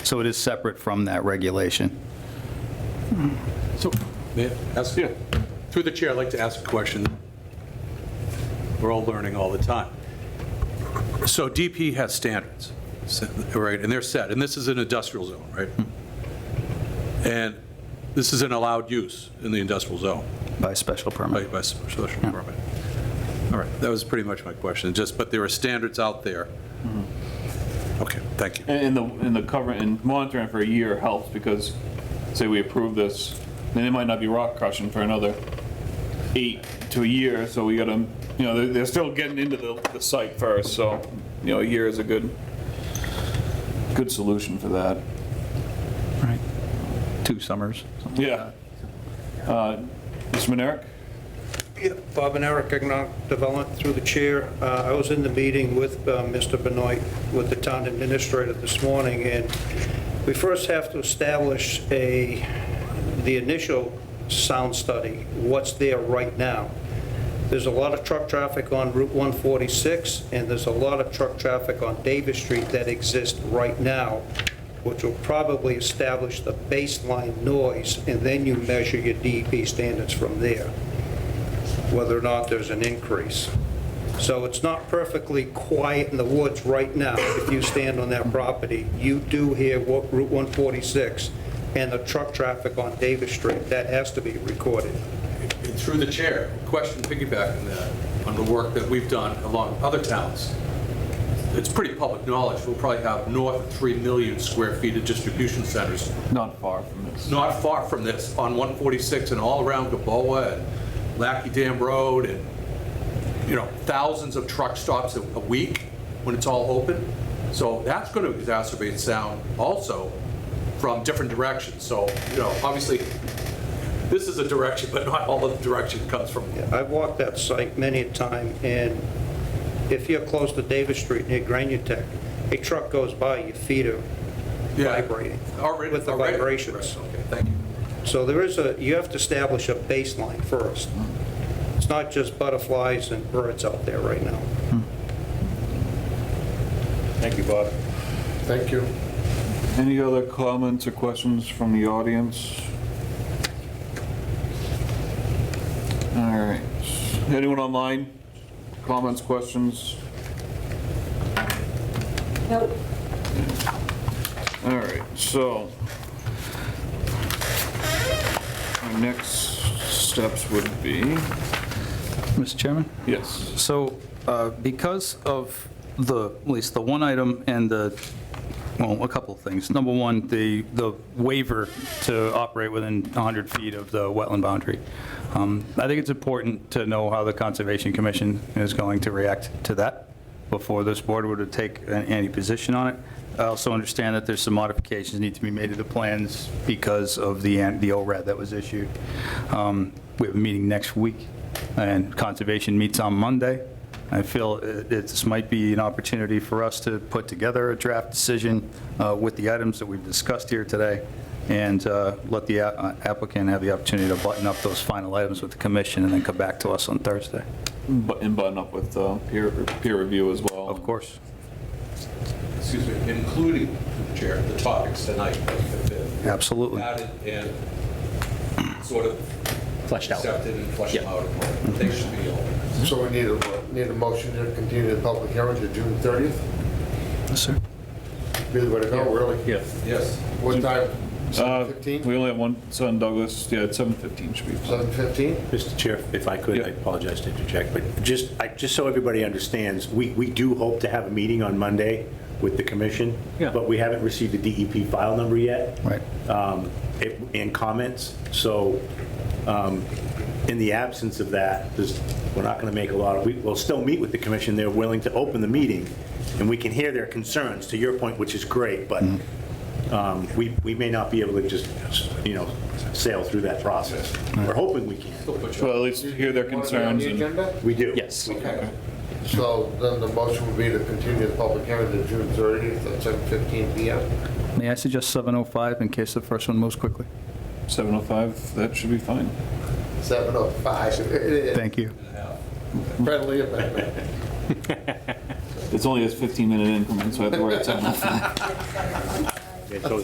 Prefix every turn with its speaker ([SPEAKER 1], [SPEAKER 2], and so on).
[SPEAKER 1] So it is separate from that regulation.
[SPEAKER 2] So, may I ask- through the chair, I'd like to ask a question. We're all learning all the time. So DP has standards, so- right, and they're set, and this is an industrial zone, right? And this is an allowed use in the industrial zone,
[SPEAKER 1] By special
[SPEAKER 2] by
[SPEAKER 1] permit.
[SPEAKER 2] by special permit. All right, that was pretty much my question, just, but there are standards out there. Okay, thank you.
[SPEAKER 3] And and the, and the cover, and monitoring for a year helps because, say we approve this, then it might not be rock crushing for another eight to a year, so we gotta, you know, they're, they're still getting into the, the site first, so, you know, a year is a good, good solution for that.
[SPEAKER 1] Two summers.
[SPEAKER 3] Yeah. Uh, Mr. Monerick?
[SPEAKER 4] Yeah, Bob and Eric, Economic Development, through the chair. Uh, I was in the meeting with uh, Mr. Benoit, with the town administrator this morning, and we first have to establish a, the initial sound study, what's there right now. There's a lot of truck traffic on Route 146, and there's a lot of truck traffic on Davis Street that exists right now, which will probably establish the baseline noise, and then you measure your DEP standards from there whether or not there's an increase. So it's not perfectly quiet in the woods right now. If you stand on that property, you do hear what Route 146 and the truck traffic on Davis Street. That has to be recorded.
[SPEAKER 2] And Through the chair, question piggybacking that, on the work that we've done along with other towns. It's pretty public knowledge, we'll probably have north of 3 million square feet of distribution centers,
[SPEAKER 3] Not far from this.
[SPEAKER 2] not far from this, on 146 and all around Gaboa and Lackey Dam Road, and, you know, thousands of truck stops a a week when it's all open. So that's going to exacerbate sound also from different directions. So, you know, obviously, this is a direction, but not all of the direction comes from
[SPEAKER 4] I've walked that site many a time, and if you're close to Davis Street near Granutech, a truck goes by, your feet are
[SPEAKER 2] Yeah.
[SPEAKER 4] vibrating
[SPEAKER 2] Already-
[SPEAKER 4] with the
[SPEAKER 2] already.
[SPEAKER 4] vibrations.
[SPEAKER 2] Right, Okay, thank you.
[SPEAKER 4] So there is a, you have to establish a baseline first. It's not just butterflies and birds out there right now.
[SPEAKER 3] Thank you, Bob.
[SPEAKER 2] Thank you.
[SPEAKER 3] Any other comments or questions from the audience? All right. Anyone online? Comments, questions?
[SPEAKER 5] Nope.
[SPEAKER 3] All right, so our next steps would be,
[SPEAKER 1] Mr. Chairman?
[SPEAKER 3] yes,
[SPEAKER 1] So uh, because of the, at least the one item and the, well, a couple of things. Number one, the, the waiver to operate within 100 feet of the wetland boundary. Um, I think it's important to know how the Conservation Commission is going to react to that before this board were to take an- any position on it. I also understand that there's some modifications need to be made to the plans because of the, an- the ORAD that was issued. Um, We have a meeting next week and Conservation meets on Monday. I feel it- this might be an opportunity for us to put together a draft decision uh, with the items that we've discussed here today, and uh, let the a- applicant have the opportunity to button up those final items with the commission, and then come back to us on Thursday.
[SPEAKER 3] bu- and button up with uh, peer, peer review as well.
[SPEAKER 1] Of course.
[SPEAKER 2] Excuse me, including, Chair, the topics tonight that have been
[SPEAKER 1] Absolutely.
[SPEAKER 2] added and sort of
[SPEAKER 6] Fleshed out.
[SPEAKER 2] Accepted and fleshed
[SPEAKER 6] Yeah.
[SPEAKER 2] out. They should be all.
[SPEAKER 7] So we need a, need a motion to continue the public hearing to June 30th?
[SPEAKER 1] Yes, sir.
[SPEAKER 7] Be the way to go, really?
[SPEAKER 3] Yeah.
[SPEAKER 2] Yes.
[SPEAKER 7] What time?
[SPEAKER 3] Uh,
[SPEAKER 7] 7:15?
[SPEAKER 3] We only have one, son Douglas, yeah, it's 7:15 should be.
[SPEAKER 7] 7:15?
[SPEAKER 6] Mr. Chair, if I could,
[SPEAKER 3] Yeah.
[SPEAKER 6] I apologize to interject, but just, I, just so everybody understands, we, we do hope to have a meeting on Monday with the commission,
[SPEAKER 3] Yeah.
[SPEAKER 6] but we haven't received the DEP file number yet.
[SPEAKER 1] Right.
[SPEAKER 6] um, it- and comments. So um, in the absence of that, there's- we're not going to make a lot of, we- we'll still meet with the commission. They're willing to open the meeting, and we can hear their concerns, to your point, which is great, but um, we we may not be able to just, you know, sail through that process. We're hoping we can.
[SPEAKER 3] Well, at least hear their
[SPEAKER 7] Want to be on
[SPEAKER 3] concerns
[SPEAKER 7] the
[SPEAKER 3] and,
[SPEAKER 7] agenda?
[SPEAKER 6] We do.
[SPEAKER 8] Yes.
[SPEAKER 7] Okay. So then the motion would be to continue the public hearing to June 30th at 7:15 PM?
[SPEAKER 1] May I suggest 7:05 in case the first one moves quickly?
[SPEAKER 3] 7:05, that should be fine.
[SPEAKER 7] 7:05.
[SPEAKER 1] Thank you.
[SPEAKER 7] Friendly amendment.
[SPEAKER 3] It's only a 15-minute increment, so I have to write 7:05.
[SPEAKER 6] Yeah, So